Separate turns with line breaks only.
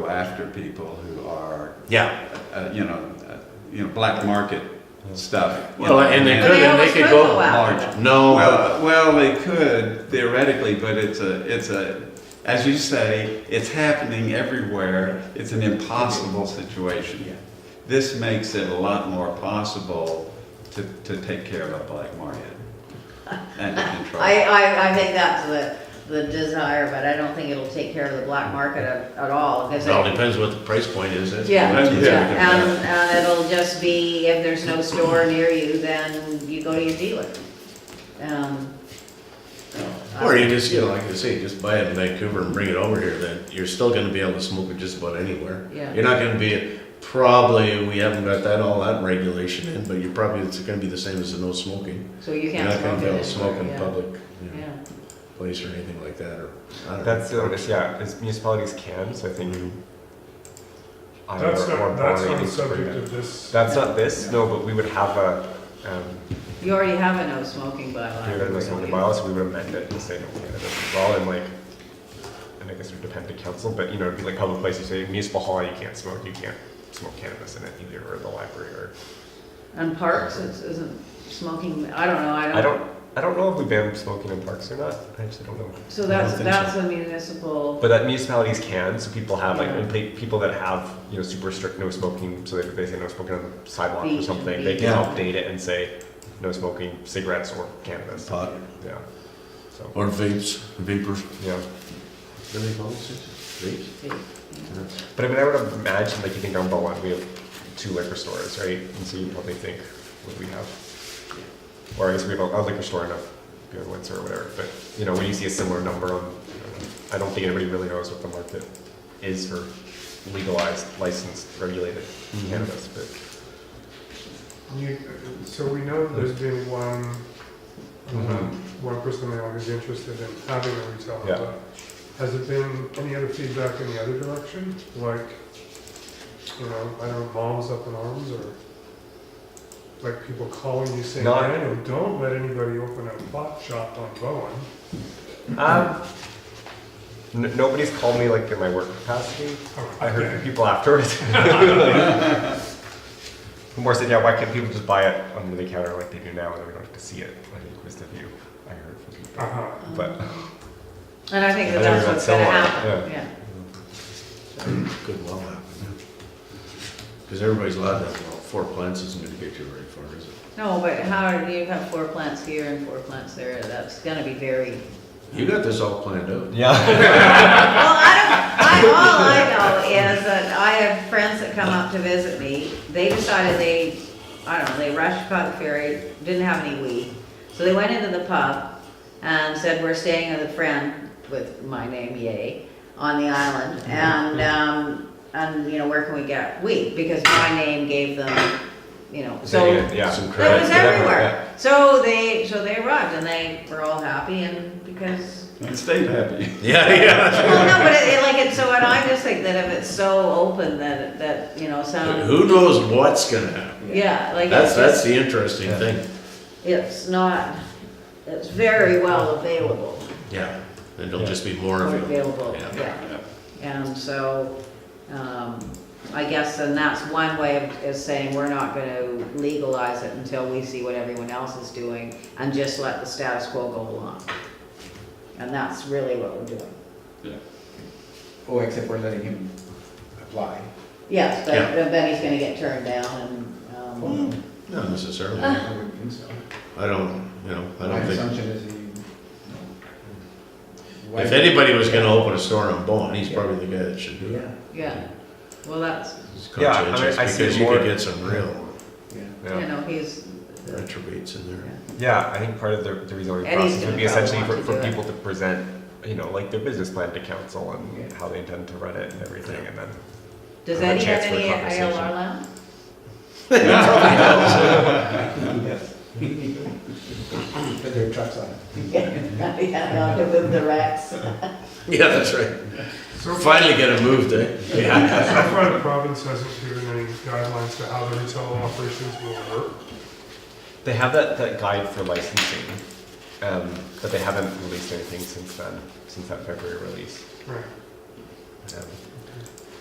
go after people who are,
Yeah.
uh, you know, uh, you know, black market stuff. you
Well,
know,
and they
But
could, and
they
they
always
could
would go
go.
out.
large.
No. uh,
Well, well, they could theoretically, but it's a, it's a, as you say, it's happening everywhere. It's an impossible situation. This makes it a lot more possible to, to take care of a black market and to control.
I, I, I think that's the, the desire, but I don't think it'll take care of the black market at, at all, because
It all depends what the price point is. that's-
Yeah,
that's what's
Yeah.
gonna
yeah,
come
and,
down.
and it'll just be, if there's no store near you, then you go to your dealer. Um, uh,
Or you just, you know, like I say, just buy it in Vancouver and bring it over here, then you're still gonna be able to smoke it just about anywhere.
Yeah.
You're not gonna be, probably, we haven't got that, all that regulation in, but you're probably, it's gonna be the same as the no smoking.
So you
You're
can't
not gonna
smoke
be
in
able
it.
to smoke in
yeah,
public, you know,
Yeah,
place or anything like that, or, I don't know.
That's the only, yeah, is municipalities can, so I think. I
Mm-hmm. That's
or- or borrowing
not, that's not the
is pretty
subject
good.
of this.
That's not this, no, but we would have a, um,
you already have a no smoking bylaw.
we would have this one bylaw, so we would amend it to say no cannabis as well, and like, and I guess it would depend to council, but you know, it'd be like public places, say municipal hall, you can't smoke, you can't smoke cannabis in it either, or the library, or,
And parks is, isn't smoking, I don't know, I don't.
I don't, I don't know if we ban smoking in parks or not, I actually don't know.
So
I don't
that's,
think so.
that's a municipal,
But that municipalities can, so people have like,
Yeah.
and pe- people that have, you know, super strict no smoking, so they, they say no smoking on the sidewalk or
Beach,
something, they
beach.
can
Yeah.
update it and say no smoking cigarettes or cannabis.
Pot
Yeah. So,
or vapes, vapors.
yeah.
What do they call this? Vapes?
But I mean, I would imagine, like, you think on Bowen, we have two liquor stores, right? And so you probably think what we have. Or I guess we have a, a liquor store in a beer and Windsor or whatever, but you know, when you see a similar number on, I don't think anybody really knows what the market is for legalized, licensed, regulated cannabis, but.
You- So we know there's been one,
Mm-hmm.
um, one person in the audience interested in having a retail
Yeah.
outlet. Has there been any other feedback in the other direction? Like, you know, I don't know, moms up in arms or like people calling you saying,
Not-
Daniel, don't let anybody open a pot shop on Bowen.
Um, n- nobody's called me like in my work capacity. I heard from
Okay.
people afterwards. Who more said, yeah, why can't people just buy it under the counter like they do now and we don't have to see it? I think was the view I heard from people.
Uh-huh.
But
and I think that
I think
that's
that's
what's gonna
somewhat,
happen, yeah.
Could well happen, yeah. Because everybody's allowed to have, well, four plants isn't gonna get you very far, is it?
No, but how, do you have four plants here and four plants there, that's gonna be very
You got this all planned out.
yeah.
Well, I don't, I, all I know is that I have friends that come up to visit me, they decided they, I don't know, they rushed Cotton Ferry, didn't have any weed. So they went into the pub and said, we're staying with a friend with my name, yay, on the island. And, um,
Mm-hmm.
and, you know, where can we get weed? Because my name gave them, you know, so.
yeah.
Some
That was
Yeah,
everywhere. So they, so they arrived and they were all happy and because
And stay happy.
Yeah, yeah.
well, no, but it, it, like it's so, and I just think that if it's so open that that you know some
Who knows what's gonna happen?
yeah, like
That's,
it's,
that's the interesting
Yeah.
thing.
it's not it's very well available
Yeah. And it'll
Yeah.
just be more
or
of it.
available
Yeah.
yeah, and so um, I guess and that's one way of is saying we're not going to legalize it until we see what everyone else is doing and just let the status quo go along, and that's really what we're doing.
Oh, except we're letting him apply.
Yes, but
Yeah.
but then he's going to get turned down and. Um,
Hmm.
Not necessarily.
Uh.
I wouldn't think so.
I don't, you know, I
My
don't think,
assumption is he. no. Why-
if anybody was gonna open a store on Bowen, he's probably the guy that should do
Yeah,
it.
Yeah, well, that's,
He's
Yeah, I mean,
conscientious,
I see
Because you
more-
could get some real
yeah.
Yeah.
you know, he's,
retrobates in there.
Yeah, I think part of the, the reason why we
Eddie's
process
gonna
would be
probably
essentially
want
for,
to
for
do it.
people to present, you know, like their business plan to council and
Yeah.
how they intend to run it and everything, and then
does
Have a
Eddie have
chance for a
any
conversation.
ALR land?
Yes. Put their trucks on it.
Yeah, no, with the racks.
Yeah, that's right.
So
Finally get it moved, eh? Yeah.
So far, the province hasn't given any guidelines to how the retail operations will work.
They have that, that guide for licensing, um, but they haven't released anything since then, since that February release.
Right.
Um,